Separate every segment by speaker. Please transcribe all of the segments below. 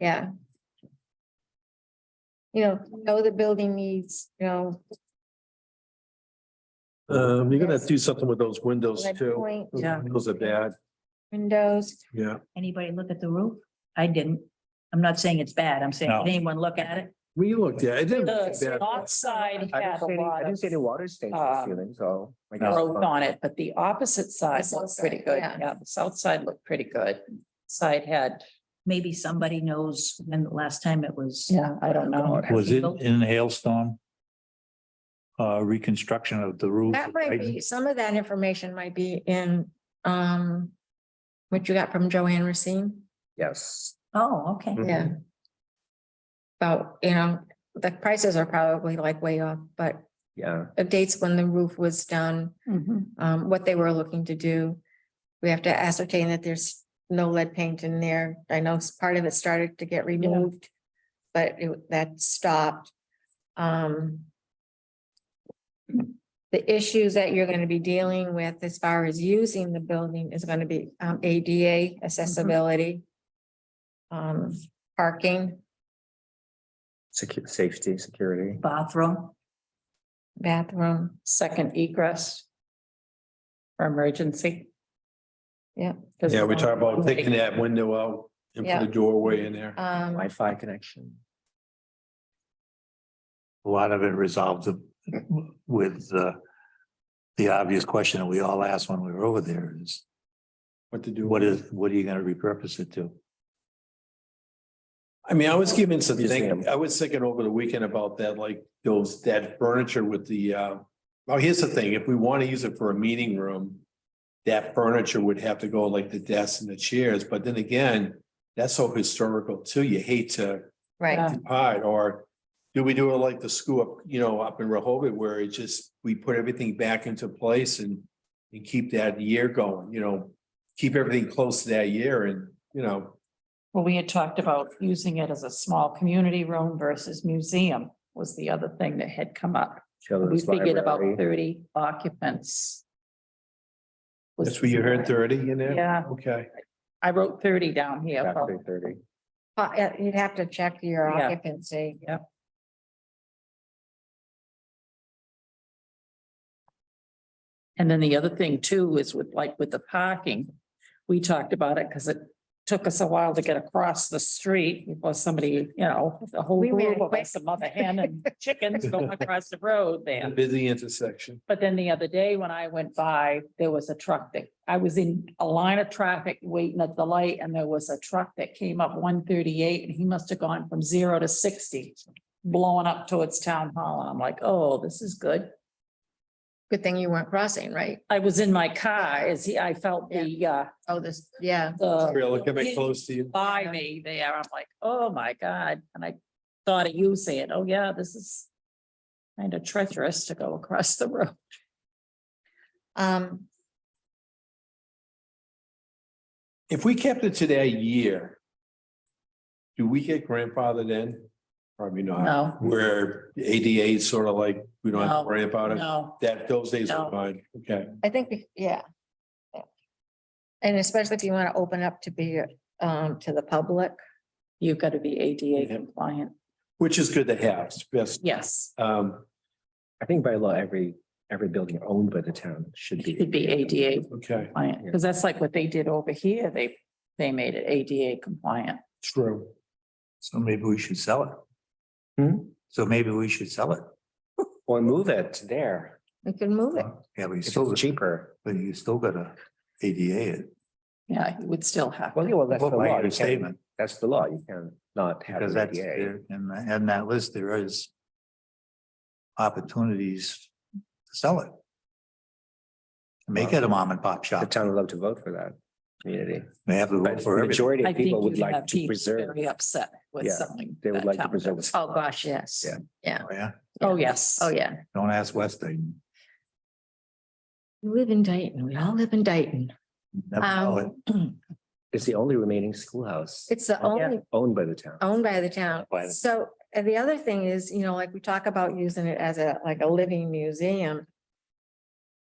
Speaker 1: Yeah. You know, know the building needs, you know.
Speaker 2: Um, you're gonna have to do something with those windows
Speaker 1: red
Speaker 2: too.
Speaker 1: point
Speaker 2: Those
Speaker 3: Yeah.
Speaker 2: Windows are bad,
Speaker 1: Windows,
Speaker 2: yeah.
Speaker 3: Anybody look at the roof? I didn't. I'm not saying it's bad. I'm saying,
Speaker 4: No.
Speaker 3: did anyone look at it?
Speaker 2: We looked at, it it didn't look
Speaker 5: The
Speaker 2: bad.
Speaker 5: north side
Speaker 6: I
Speaker 5: had
Speaker 6: didn't
Speaker 5: a
Speaker 6: see any, I
Speaker 5: lot
Speaker 6: didn't
Speaker 5: of
Speaker 6: see any water stains in
Speaker 5: uh,
Speaker 6: the ceiling, so. I guess-
Speaker 5: growth on it, but the opposite side
Speaker 1: The south
Speaker 5: looked pretty
Speaker 1: side,
Speaker 5: good.
Speaker 1: yeah.
Speaker 5: Yeah, the south side looked pretty good. Side had,
Speaker 3: Maybe somebody knows when the last time it was.
Speaker 5: yeah, I don't know.
Speaker 4: Was it in hailstorm? Uh, reconstruction of the roof.
Speaker 1: that might be, some of that information might be in, um. What you got from Joanne Racine,
Speaker 6: Yes.
Speaker 3: Oh, okay.
Speaker 1: yeah. About, you know, the prices are probably like way off, but
Speaker 6: Yeah,
Speaker 1: it dates when the roof was done,
Speaker 5: Mhm.
Speaker 1: um, what they were looking to do. We have to ascertain that there's no lead paint in there. I know s- part of it started to get removed, but it- that stopped. Um. The issues that you're gonna be dealing with as far as using the building is gonna be, um, ADA accessibility. Um, parking,
Speaker 6: secu- safety, security.
Speaker 3: Bathroom.
Speaker 1: bathroom,
Speaker 5: Second egress. For emergency.
Speaker 1: Yeah.
Speaker 2: Yeah, we talked about taking that window out and
Speaker 1: Yeah.
Speaker 2: put a doorway in there.
Speaker 1: um,
Speaker 6: Wi-Fi connection.
Speaker 4: A lot of it resolved with, uh, the obvious question that we all asked when we were over there is,
Speaker 2: What to do.
Speaker 4: what is, what are you gonna repurpose it to?
Speaker 2: I mean, I was given some
Speaker 6: Museum.
Speaker 2: thinking, I was thinking over the weekend about that, like those, that furniture with the, uh. Well, here's the thing, if we want to use it for a meeting room, that furniture would have to go like the desks and the chairs, but then again. That's so historical too, you hate to
Speaker 1: right,
Speaker 5: Yeah.
Speaker 2: occupied, or do we do it like the school up, you know, up in Rehoboth where it just, we put everything back into place and and keep that year going, you know, keep everything close to that year and, you know,
Speaker 5: Well, we had talked about using it as a small community room versus museum was the other thing that had come up. We
Speaker 6: children's
Speaker 5: figured about
Speaker 6: library.
Speaker 5: thirty occupants. was-
Speaker 2: that's where you heard thirty in there?
Speaker 5: Yeah,
Speaker 2: Okay,
Speaker 5: I wrote thirty down here.
Speaker 6: Factory thirty.
Speaker 1: Uh, yeah, you'd have to check your
Speaker 5: Yeah.
Speaker 1: occupancy.
Speaker 5: Yep. And then the other thing too is with like with the parking, we talked about it because it took us a while to get across the street before somebody, you know, the whole
Speaker 1: We ran
Speaker 5: group of
Speaker 1: quick.
Speaker 5: us, the mother hen and chickens going across the road
Speaker 2: a
Speaker 5: there.
Speaker 2: busy intersection.
Speaker 5: But then the other day when I went by, there was a truck that, I was in a line of traffic waiting at the light and there was a truck that came up one thirty-eight and he must have gone from zero to sixty. Blowing up towards town hall and I'm like, oh, this is good.
Speaker 1: Good thing you weren't crossing, right?
Speaker 5: I was in my car as he, I felt the, uh,
Speaker 1: Oh, this, yeah.
Speaker 5: the
Speaker 2: Trailer coming close to you.
Speaker 5: by me there. I'm like, oh my God. And I thought of you saying, oh yeah, this is kind of treacherous to go across the road.
Speaker 1: Um,
Speaker 2: If we kept it to that year, do we get grandfathered in? Probably not,
Speaker 5: No,
Speaker 2: where ADA is sort of like, we don't have
Speaker 5: No,
Speaker 2: to worry about it,
Speaker 5: no.
Speaker 2: that, those days
Speaker 5: No.
Speaker 2: are fine, okay.
Speaker 1: I think, we- yeah. Yeah. And especially if you want to open up to be, um, to the public.
Speaker 5: You've got to be ADA
Speaker 2: Yeah.
Speaker 5: compliant.
Speaker 2: Which is good to have, it's best.
Speaker 5: Yes,
Speaker 2: Um,
Speaker 6: I think by law, every, every building owned by the town should be.
Speaker 5: it could be ADA
Speaker 2: okay,
Speaker 5: compliant, because that's like what they did over here. They, they made it ADA compliant.
Speaker 2: true.
Speaker 4: So maybe we should sell it.
Speaker 6: Hmm?
Speaker 4: So maybe we should sell it.
Speaker 6: Or move it there.
Speaker 1: We can move it.
Speaker 4: Yeah, we
Speaker 6: If
Speaker 4: still,
Speaker 6: it's cheaper.
Speaker 4: but you still gotta ADA it.
Speaker 5: Yeah, you would still have.
Speaker 6: Well, yeah, well, that's the
Speaker 4: What my
Speaker 6: law. You
Speaker 4: understatement.
Speaker 6: can't- That's the law. You can not have
Speaker 4: Because
Speaker 6: an
Speaker 4: that's,
Speaker 6: ADA.
Speaker 4: there- and, and that list, there is opportunities to sell it. Make it a mom and pop
Speaker 6: The
Speaker 4: shop.
Speaker 6: town would love to vote for that community.
Speaker 4: They have the vote
Speaker 6: But
Speaker 4: for
Speaker 6: the
Speaker 4: everything.
Speaker 6: majority
Speaker 5: I
Speaker 6: of
Speaker 5: think
Speaker 6: people would
Speaker 5: you'd have
Speaker 6: like to
Speaker 5: people
Speaker 6: preserve.
Speaker 5: Very upset with
Speaker 6: Yeah,
Speaker 5: something.
Speaker 6: they would
Speaker 5: that
Speaker 6: like to
Speaker 5: happened.
Speaker 6: preserve it.
Speaker 1: Oh, gosh, yes.
Speaker 6: Yeah.
Speaker 4: Oh, Yeah,
Speaker 5: Oh, yes.
Speaker 1: Oh, yeah.
Speaker 4: don't ask West Dayton.
Speaker 1: We live in Dayton. We all live in Dayton.
Speaker 4: Never know it.
Speaker 1: Um,
Speaker 6: It's the only remaining schoolhouse.
Speaker 1: it's the
Speaker 6: Oh, yeah,
Speaker 1: only
Speaker 6: Owned by the town.
Speaker 1: owned by the town.
Speaker 6: By the-
Speaker 1: So, and the other thing is, you know, like we talk about using it as a, like a living museum.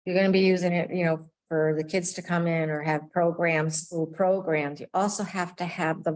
Speaker 1: You're gonna be using it, you know, for the kids to come in or have programs, school programs. You also have to have the